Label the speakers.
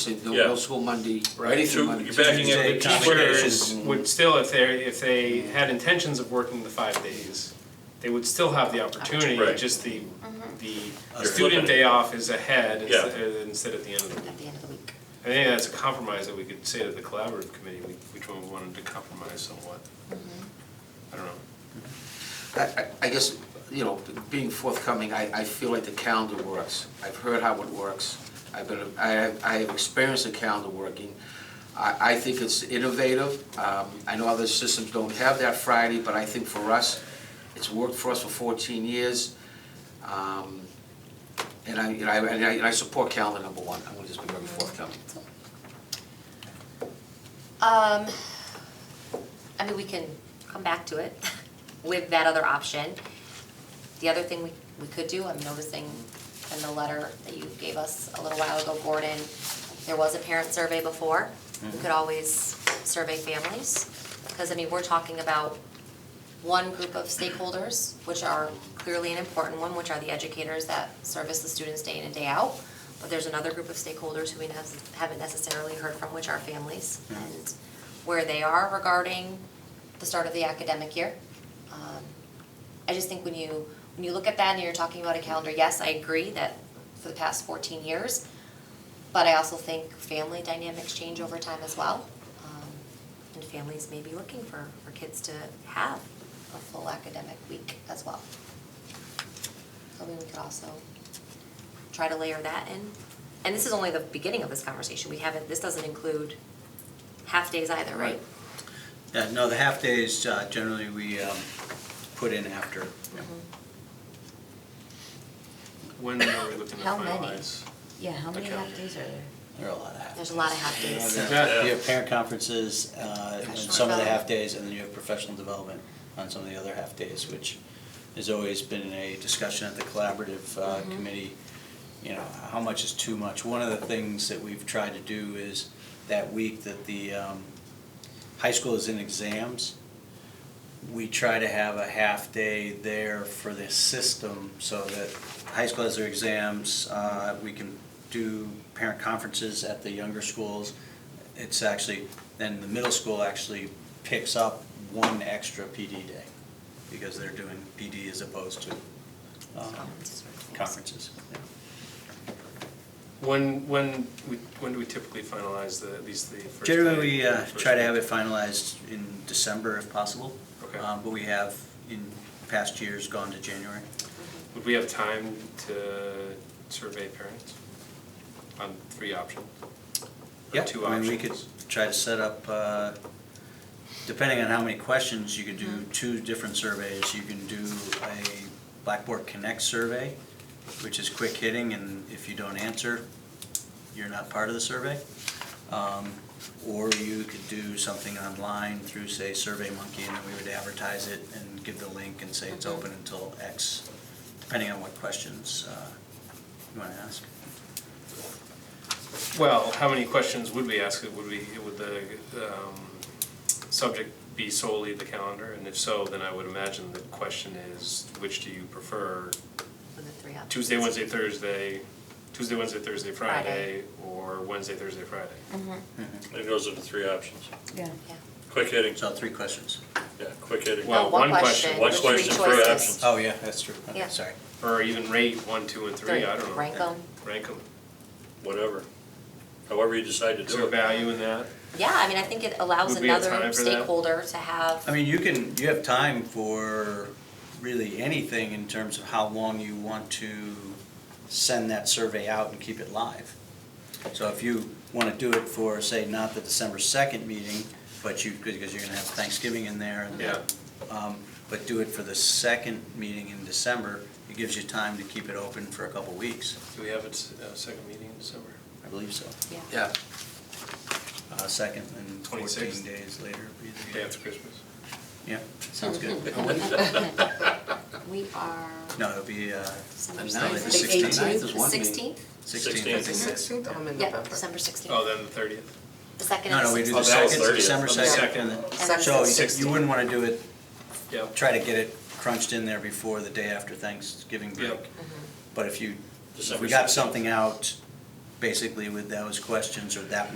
Speaker 1: said no,
Speaker 2: Yeah.
Speaker 1: no school Monday.
Speaker 2: Right,
Speaker 1: Tuesday,
Speaker 2: so
Speaker 1: Monday,
Speaker 2: you're backing
Speaker 1: Tuesday.
Speaker 2: up-
Speaker 3: The teachers
Speaker 2: Complications.
Speaker 3: would still, if they, if they had intentions of working the five days, they would still have the opportunity,
Speaker 2: Right.
Speaker 3: just the,
Speaker 4: Mm-hmm.
Speaker 3: the
Speaker 2: You're flipping it.
Speaker 3: student day off is ahead
Speaker 2: Yeah.
Speaker 3: instead instead at the end of the week.
Speaker 4: at the end of the week.
Speaker 3: I think that's a compromise that we could say to the collaborative committee, we- which one we wanted to compromise somewhat.
Speaker 4: Mm-hmm.
Speaker 3: I don't know.
Speaker 1: I, I- I guess, you know, being forthcoming, I, I feel like the calendar works. I've heard how it works. I've been, I, have- I have experienced the calendar working. I, I think it's innovative. Um, I know other systems don't have that Friday, but I think for us, it's worked for us for fourteen years. Um, And I, and I, and I- and I support calendar number one. I'm gonna just be very forthcoming.
Speaker 4: Um, I mean, we can come back to it with that other option. The other thing we, we could do, I'm noticing in the letter that you gave us a little while ago, Gordon, there was a parent survey before. We could always survey families, because I mean, we're talking about one group of stakeholders, which are clearly an important one, which are the educators that service the students day in and day out. But there's another group of stakeholders who we nes- haven't necessarily heard from, which are families, and where they are regarding the start of the academic year. Um, I just think when you, when you look at that and you're talking about a calendar, yes, I agree that for the past fourteen years, but I also think family dynamics change over time as well. Um, And families may be looking for, for kids to have a full academic week as well. So we could also try to layer that in. And this is only the beginning of this conversation. We haven't, this doesn't include half-days either, right?
Speaker 5: Yeah, no, the half-days, uh, generally, we um, put in after.
Speaker 3: When are we looking to
Speaker 4: How many?
Speaker 3: finalize?
Speaker 6: Yeah, how many
Speaker 3: Okay.
Speaker 6: half days are there?
Speaker 5: There are a lot of half-days.
Speaker 4: There's a lot of half-days.
Speaker 3: Yeah.
Speaker 5: You have parent conferences uh, on
Speaker 4: Professional
Speaker 5: some of the
Speaker 4: development.
Speaker 5: half-days, and then you have professional development on some of the other half-days, which has always been a discussion at the collaborative uh,
Speaker 4: Mm-hmm.
Speaker 5: committee, you know, how much is too much? One of the things that we've tried to do is that week that the um, high school is in exams, we try to have a half day there for the system so that high school has their exams, uh, we can do parent conferences at the younger schools. It's actually, then the middle school actually picks up one extra PD day because they're doing PD as opposed to um,
Speaker 4: Conferences or
Speaker 5: conferences. yeah.
Speaker 3: When, when, we- when do we typically finalize the, at least the first day?
Speaker 5: Generally, we uh,
Speaker 3: first
Speaker 5: try to
Speaker 3: week?
Speaker 5: have it finalized in December if possible.
Speaker 3: Okay.
Speaker 5: Um, But we have, in past years, gone to January.
Speaker 3: Would we have time to survey parents on three options? Or
Speaker 5: Yeah,
Speaker 3: two
Speaker 5: I mean, we could
Speaker 3: options?
Speaker 5: try to set up, uh, depending on how many questions, you could do two different surveys. You can do a Blackboard Connect survey, which is quick hitting, and if you don't answer, you're not part of the survey. Um, Or you could do something online through, say, SurveyMonkey, and then we would advertise it and give the link and say it's open until X, depending on what questions uh, you want to ask.
Speaker 3: Well, how many questions would we ask? Would we, would the um, subject be solely the calendar? And if so, then I would imagine the question is, which do you prefer?
Speaker 4: With the three options.
Speaker 3: Tuesday, Wednesday, Thursday, Tuesday, Wednesday, Thursday, Friday,
Speaker 4: Friday.
Speaker 3: or Wednesday, Thursday, Friday?
Speaker 2: It goes into three options.
Speaker 6: Yeah.
Speaker 4: Yeah.
Speaker 2: Quick hitting,
Speaker 5: So three questions.
Speaker 2: yeah, quick hitting.
Speaker 3: Well,
Speaker 4: No,
Speaker 3: one question.
Speaker 2: One
Speaker 4: with three
Speaker 2: question per
Speaker 4: choices.
Speaker 2: option.
Speaker 5: Oh, yeah, that's true. Okay,
Speaker 4: Yeah.
Speaker 5: sorry.
Speaker 3: Or even rate one, two, and three, I don't know.
Speaker 4: Rank them.
Speaker 3: Rank them.
Speaker 2: Whatever. However you decide to
Speaker 3: Is there
Speaker 2: do it.
Speaker 3: value in that?
Speaker 4: Yeah, I mean, I think it allows
Speaker 3: Would we have
Speaker 4: another
Speaker 3: time for that?
Speaker 4: stakeholder to have.
Speaker 5: I mean, you can, you have time for really anything in terms of how long you want to send that survey out and keep it live. So if you want to do it for, say, not the December second meeting, but you, because you're going to have Thanksgiving in there. and-
Speaker 3: Yeah.
Speaker 5: um, But do it for the second meeting in December, it gives you time to keep it open for a couple weeks,
Speaker 3: Do we have a s- a second meeting in December?
Speaker 5: I believe so.
Speaker 1: Yeah.
Speaker 5: Uh, second and fourteen
Speaker 3: 26th.
Speaker 5: days later. would be the-
Speaker 3: Day after Christmas?
Speaker 5: Yeah, sounds good.
Speaker 4: We are.
Speaker 5: No, it'll be, uh,
Speaker 1: The
Speaker 4: December
Speaker 1: ninth, the
Speaker 4: 16th.
Speaker 1: sixteenth is one meeting.
Speaker 4: Sixteenth?
Speaker 5: sixteenth.
Speaker 2: Sixteenth.
Speaker 7: Sixteenth, I'm in
Speaker 4: Yeah,
Speaker 7: November.
Speaker 4: December sixteenth.
Speaker 3: Oh, then the thirtieth?
Speaker 4: The second
Speaker 5: No,
Speaker 4: and
Speaker 5: no, we do
Speaker 4: sixteenth.
Speaker 5: the
Speaker 2: Oh, that was
Speaker 5: second,
Speaker 2: 30th.
Speaker 5: December
Speaker 3: Oh, the
Speaker 5: second.
Speaker 3: second.
Speaker 4: Second,
Speaker 5: So you- you
Speaker 4: sixteenth.
Speaker 5: wouldn't want to do it,
Speaker 3: Yeah.
Speaker 5: try to get it crunched in there before the day after Thanksgiving break.
Speaker 3: Yep.
Speaker 5: But if you, if
Speaker 2: December
Speaker 5: we got
Speaker 2: 16th.
Speaker 5: something out basically with those questions or that